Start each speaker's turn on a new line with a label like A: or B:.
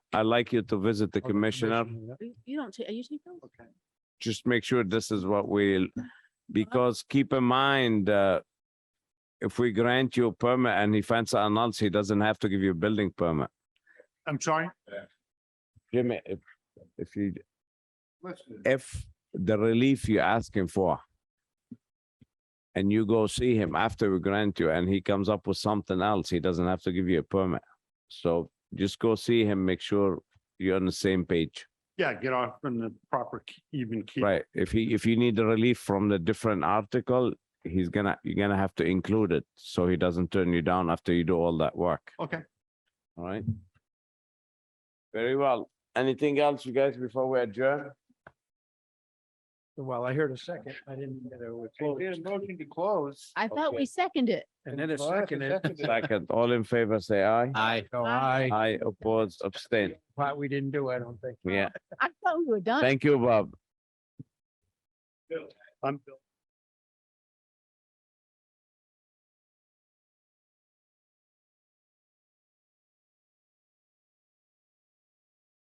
A: I'd like you to visit the
B: Or the
A: commissioner.
B: yeah.
C: You- You don't, ta- are you taking? notes?
B: Okay.
A: Just make sure this is what we'll, because keep in mind, uh, if we grant you a permit and he finds it annuls, he doesn't have to give you a building permit.
B: I'm sorry?
A: Jimmy, if, if you,
B: Listen.
A: if the relief you're asking for and you go see him after we grant you and he comes up with something else, he doesn't have to give you a permit. So just go see him, make sure you're on the same page.
B: Yeah, get off from the proper k- even key.
A: Right, if he, if you need the relief from the different article, he's gonna, you're gonna have to include it, so he doesn't turn you down after you do all that work,
B: Okay,
A: all right? Very well, anything else, you guys, before we adjourn?
D: Well, I heard a second. I didn't get a close.
B: motion to close.
C: I thought we seconded it.
D: And then a second. eh?
A: Second, all in favor, say aye.
D: I. So
C: Aye.
D: I,
A: Aye, opposed, abstain,
D: what we didn't do, I don't think.
A: yeah,
C: I thought we were done.
A: thank you, Bob.
B: I'm Bill.